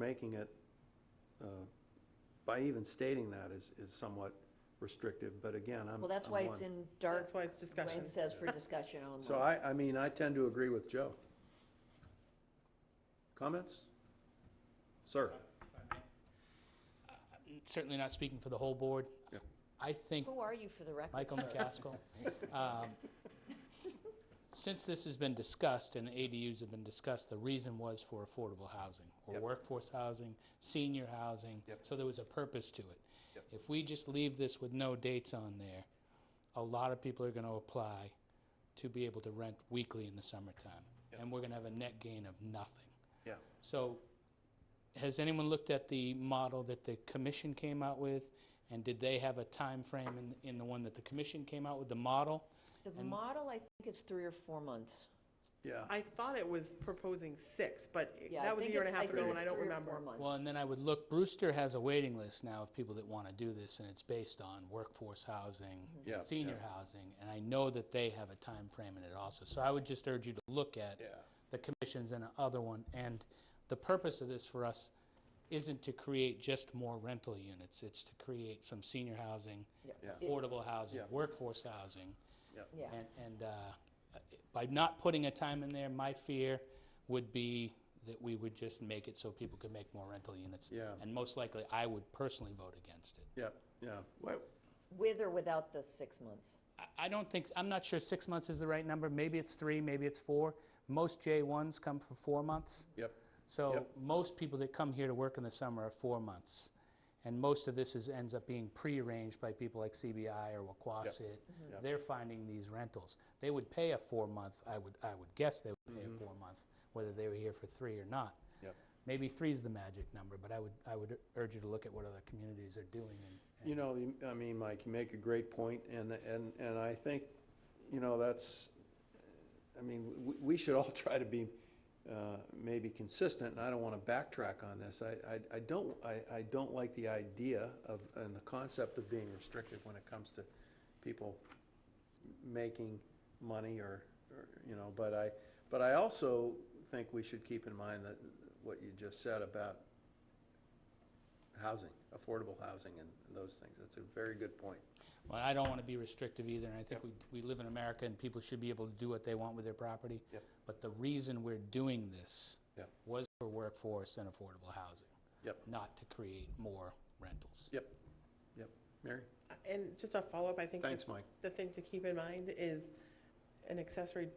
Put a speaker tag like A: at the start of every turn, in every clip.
A: making it, uh, by even stating that is, is somewhat restrictive, but again, I'm.
B: Well, that's
A: I'm
B: why it's
A: one.
B: in dark,
C: That's why it's
B: when
C: discussion.
B: it says for discussion only.
A: So I, I mean, I tend to agree with Joe. Comments? Sir?
D: certainly not speaking for the whole board.
A: Yeah.
D: I think
B: Who are you for the record?
D: Michael
B: sir?
D: McCaskill, um, since this has been discussed and ADUs have been discussed, the reason was for affordable housing or
A: Yep.
D: workforce housing, senior housing.
A: Yep.
D: So there was a purpose to it.
A: Yep.
D: If we just leave this with no dates on there, a lot of people are going to apply to be able to rent weekly in the summertime.
A: Yep.
D: And we're going to have a net gain of nothing.
A: Yeah.
D: So, has anyone looked at the model that the commission came out with? And did they have a time frame in, in the one that the commission came out with, the model?
B: The model, I think, is three or four months.
A: Yeah.
C: I thought it was proposing six, but it-
B: Yeah, I
C: that was a
B: think
C: year and a
B: it's-
C: half ago
B: think
C: and I
B: it's
C: don't
B: three or
C: remember.
B: four months.
D: Well, and then I would look, Brewster has a waiting list now of people that want to do this, and it's based on workforce housing,
A: Yeah, Mm-hmm. yeah.
D: senior housing, and I know that they have a time frame in it also. So I would just urge you to look at
A: Yeah.
D: the commissions and the other one. And the purpose of this for us isn't to create just more rental units, it's to create some senior housing,
A: Yeah.
D: affordable housing,
A: Yeah.
D: workforce housing.
B: Yeah,
D: And, and uh, by not putting a time in there, my fear would be that we would just make it so people could make more rental units.
A: Yeah.
D: And most likely, I would personally vote against it.
A: Yeah, yeah. Well,
B: with or without the six months.
D: I, I don't think, I'm not sure six months is the right number. Maybe it's three, maybe it's four. Most J1s come for four months.
A: Yep,
D: So
A: Yep.
D: most people that come here to work in the summer are four months. And most of this is, ends up being pre-arranged by people like CBI or Waquasit.
A: Yep.
D: They're finding these rentals. They would pay a four-month, I would, I would guess they would pay a four-month, whether they were here for three or not.
A: Mm-hmm. yep.
D: Maybe three is the magic number, but I would, I would urge you to look at what other communities are doing and
A: You know, you- I mean, Mike, you make a great point, and, and, and I think, you know, that's, I mean, we, we should all try to be uh, maybe consistent, and I don't want to backtrack on this. I, I, I don't, I, I don't like the idea of, and the concept of being restrictive when it comes to people making money or, or, you know, but I, but I also think we should keep in mind that, what you just said about housing, affordable housing and those things. That's a very good point.
D: Well, I don't want to be restrictive either, and I think we, we live in America and people should be able to do what they want with their property.
A: Yep.
D: But the reason we're doing this
A: Yep.
D: was for workforce and affordable housing,
A: Yep,
D: not to create more rentals.
A: yep, yep. Mary?
C: And just a follow-up, I think. the-
A: Thanks, Mike.
C: The thing to keep in mind is an accessory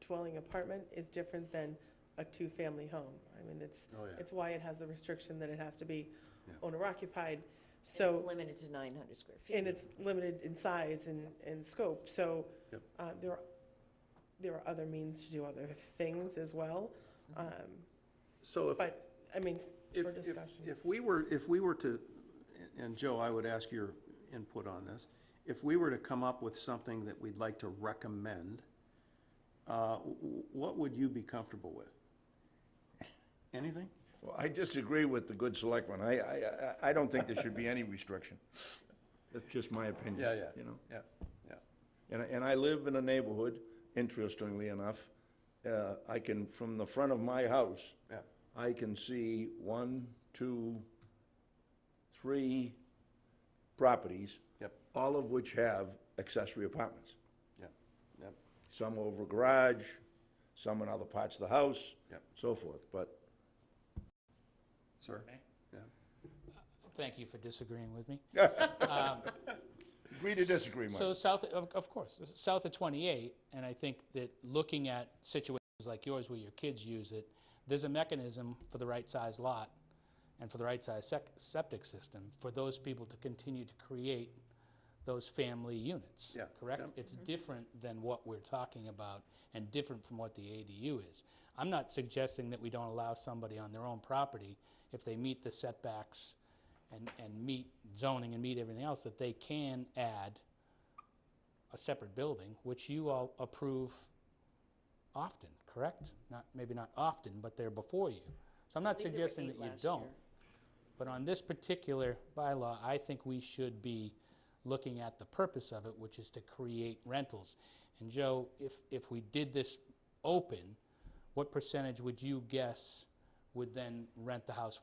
C: dwelling apartment is different than a two-family home. I mean, it's,
A: Oh, yeah.
C: it's why it has the restriction that it has to be
A: Yeah.
C: owner-occupied.
B: And
C: So,
B: It's limited to 900 square feet.
C: and it's limited in size and, and scope. So
A: Yep.
C: uh, there, are- there are other means to do other things as well. Um,
A: So if,
C: But, I mean,
A: if,
C: for
A: if,
C: discussion.
A: if we were, if we were to, and Joe, I would ask your input on this. If we were to come up with something that we'd like to recommend, uh, w- w- what would you be comfortable with? Anything?
E: Well, I disagree with the good selectman. I, I, I- I don't think there should be any restriction. That's just my opinion. You know?
A: Yeah, yeah.
E: And, I- and I live in a neighborhood, interestingly enough, uh, I can, from the front of my house,
A: Yeah.
E: I can see one, two, three properties.
A: Yep.
E: All of which have accessory apartments.
A: Yep, yep,
E: Some over garage, some in other parts of the house.
A: Yep.
E: So forth, but
A: sir?
D: Okay.
A: Yeah,
D: Thank you for disagreeing with me.
E: agree to disagree, Mike.
D: So south, of, of course, s- south of 28, and I think that looking at situations like yours where your kids use it, there's a mechanism for the right size lot and for the right size sec- septic system for those people to continue to create those family units.
A: Yeah,
D: Correct?
A: yeah.
B: Mm-hmm.
D: It's different than what we're talking about and different from what the ADU is. I'm not suggesting that we don't allow somebody on their own property if they meet the setbacks and, and meet zoning and meet everything else, that they can add a separate building, which you all approve often, correct? Not, maybe not often, but they're before you. So I'm
B: I
D: not
B: think there were
D: suggesting that
B: eight
D: you
B: last
D: don't.
B: year.
D: But on this particular bylaw, I think we should be looking at the purpose of it, which is to create rentals. And Joe, if, if we did this open, what percentage would you guess would then rent the house